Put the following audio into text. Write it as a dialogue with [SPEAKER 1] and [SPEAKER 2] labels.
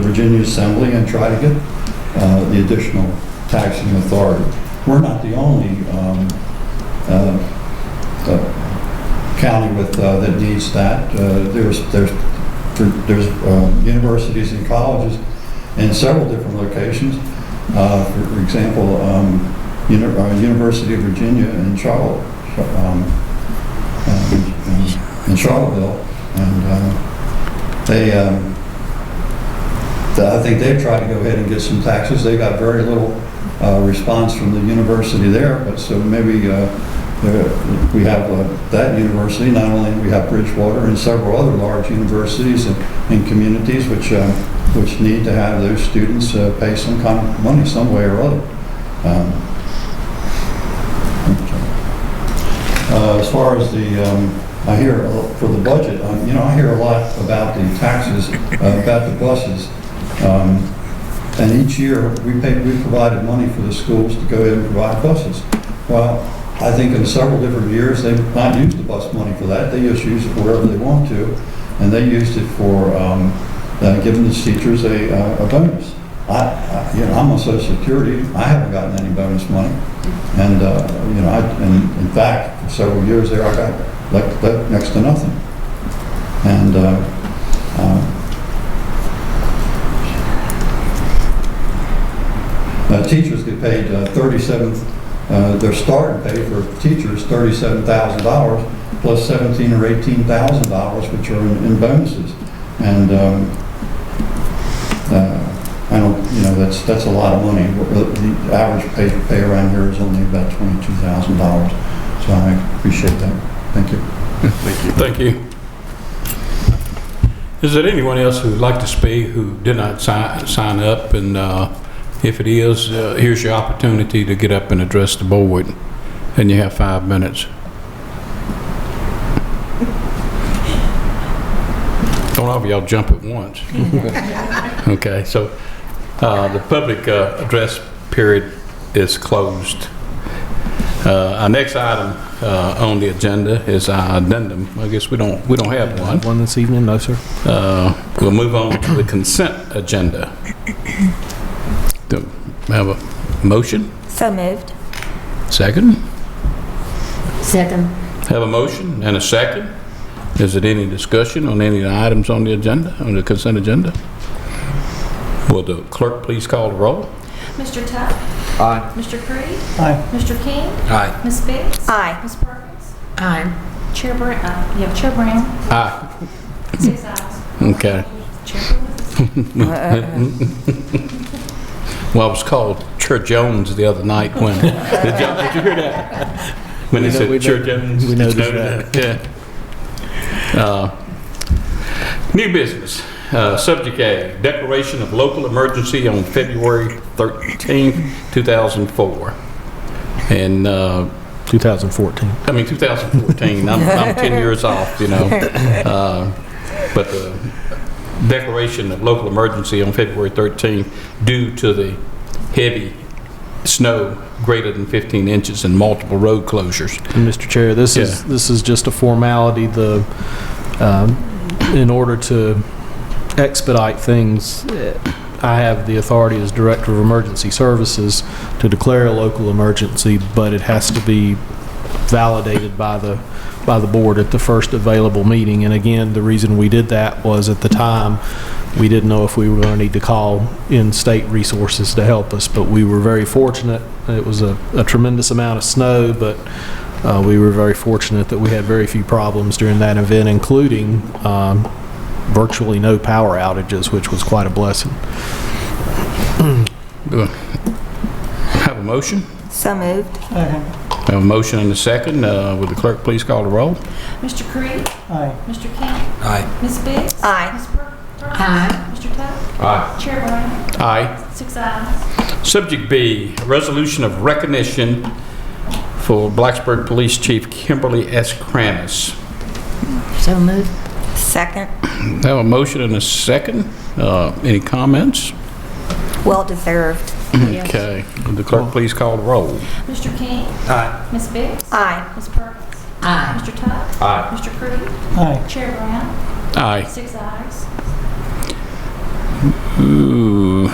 [SPEAKER 1] Virginia Assembly and try to get uh, the additional taxing authority. We're not the only um, uh, uh, county with, uh, that needs that. Uh, There's, there's, there's um, universities and colleges in several different locations. Uh, For for example, um, Uni- uh, University of Virginia in Charlotte, um, um, in Charlottesville, and um, they, um, th- I think they've tried to go ahead and get some taxes. They got very little uh, response from the university there, but so maybe uh, there- we have uh, that university, not only we have Bridgewater and several other large universities and and communities which, uh, which need to have those students uh, pay some kind of money some way or other. Um, uh, As far as the, um, I hear, uh, for the budget, um, you know, I hear a lot about the taxes, uh, about the buses. Um, And each year, we pay, we provided money for the schools to go ahead and provide buses. Well, I think in several different years, they've not used the bus money for that. They just use it wherever they want to. And they used it for um, uh, giving the teachers a uh, a bonus. I, I- you know, I'm on social security. I haven't gotten any bonus money. And, uh, you know, I, and in fact, for several years there, I got like, like next to nothing. And, uh, um, uh, teachers get paid uh, 37, uh, their starting pay for teachers, $37,000 plus 17 or 18,000 dollars, which are in in bonuses. And, um, uh, I don't, you know, that's, that's a lot of money. uh, The average pay, pay around here is only about twenty-two thousand dollars, so I appreciate that. Thank you.
[SPEAKER 2] Thank you. Is there anyone else who'd like to speak who did not si- sign up? And uh, if it is, uh, here's your opportunity to get up and address the board, and you have five minutes. Don't all of y'all jump at once. Okay, so uh, the public uh, address period is closed. Uh, Our next item uh, on the agenda is our addendum. I guess we don't, we don't have one.
[SPEAKER 3] One this evening? No, sir.
[SPEAKER 2] Uh, We'll move on to the consent agenda. Do we have a motion?
[SPEAKER 4] So moved.
[SPEAKER 2] Second?
[SPEAKER 4] Second.
[SPEAKER 2] Have a motion and a second. Is it any discussion on any of the items on the agenda, on the consent agenda? Will the clerk please call the roll?
[SPEAKER 5] Mr. Tuck?
[SPEAKER 3] Aye.
[SPEAKER 5] Mr. Creed?
[SPEAKER 1] Aye.
[SPEAKER 5] Mr. King?
[SPEAKER 2] Aye.
[SPEAKER 5] Ms. Biggs?
[SPEAKER 4] Aye.
[SPEAKER 5] Ms. Perkins? Aye. Chair Brown, uh, yeah, Chair Brown,
[SPEAKER 2] Aye.
[SPEAKER 5] six ayes.
[SPEAKER 2] Okay.
[SPEAKER 5] Chair Brown?
[SPEAKER 2] Well, I was called Chair Jones the other night when, did y'all, did you hear that? When
[SPEAKER 3] We
[SPEAKER 2] they
[SPEAKER 3] know-
[SPEAKER 2] said
[SPEAKER 3] we
[SPEAKER 2] Chair
[SPEAKER 3] know-
[SPEAKER 2] Jones.
[SPEAKER 3] we noticed
[SPEAKER 2] that. Yeah. Uh, New business, uh, subject A, declaration of local emergency on February 13th, 2004. And, uh,
[SPEAKER 3] 2014.
[SPEAKER 2] I mean, 2014, I'm, I'm 10 years off, you know. Uh, But the declaration of local emergency on February 13th due to the heavy snow greater than 15 inches and multiple road closures.
[SPEAKER 3] And Mr. Chair, this is, this is just a formality, the, um, in order to expedite things, eh, I have the authority as Director of Emergency Services to declare a local emergency, but it has to be validated by the, by the board at the first available meeting. And again, the reason we did that was at the time, we didn't know if we were going to need to call in state resources to help us, but we were very fortunate. It was a a tremendous amount of snow, but uh, we were very fortunate that we had very few problems during that event, including um, virtually no power outages, which was quite a blessing.
[SPEAKER 2] Do I Have a motion?
[SPEAKER 4] So moved.
[SPEAKER 2] Have a motion and a second. Uh, Would the clerk please call the roll?
[SPEAKER 5] Mr. Creed? Aye. Mr. King?
[SPEAKER 2] Aye.
[SPEAKER 5] Ms. Biggs?
[SPEAKER 4] Aye.
[SPEAKER 5] Ms. Per- Perkins? Aye. Mr. Tuck?
[SPEAKER 2] Aye.
[SPEAKER 5] Chair Brown,
[SPEAKER 2] Aye.
[SPEAKER 5] six ayes.
[SPEAKER 2] Subject B, resolution of recognition for Blacksburg Police Chief Kimberly S. Kranis.
[SPEAKER 4] So moved. Second.
[SPEAKER 2] Have a motion and a second. Uh, Any comments?
[SPEAKER 4] Well deserved.
[SPEAKER 2] Okay. Would the clerk please call the roll?
[SPEAKER 5] Mr. King?
[SPEAKER 2] Aye.
[SPEAKER 5] Ms. Biggs?
[SPEAKER 4] Aye.
[SPEAKER 5] Ms. Perkins? Aye. Mr. Tuck?
[SPEAKER 2] Aye.
[SPEAKER 5] Mr. Creed? Aye. Chair Brown,
[SPEAKER 2] Aye.
[SPEAKER 5] six ayes.
[SPEAKER 2] Ooh.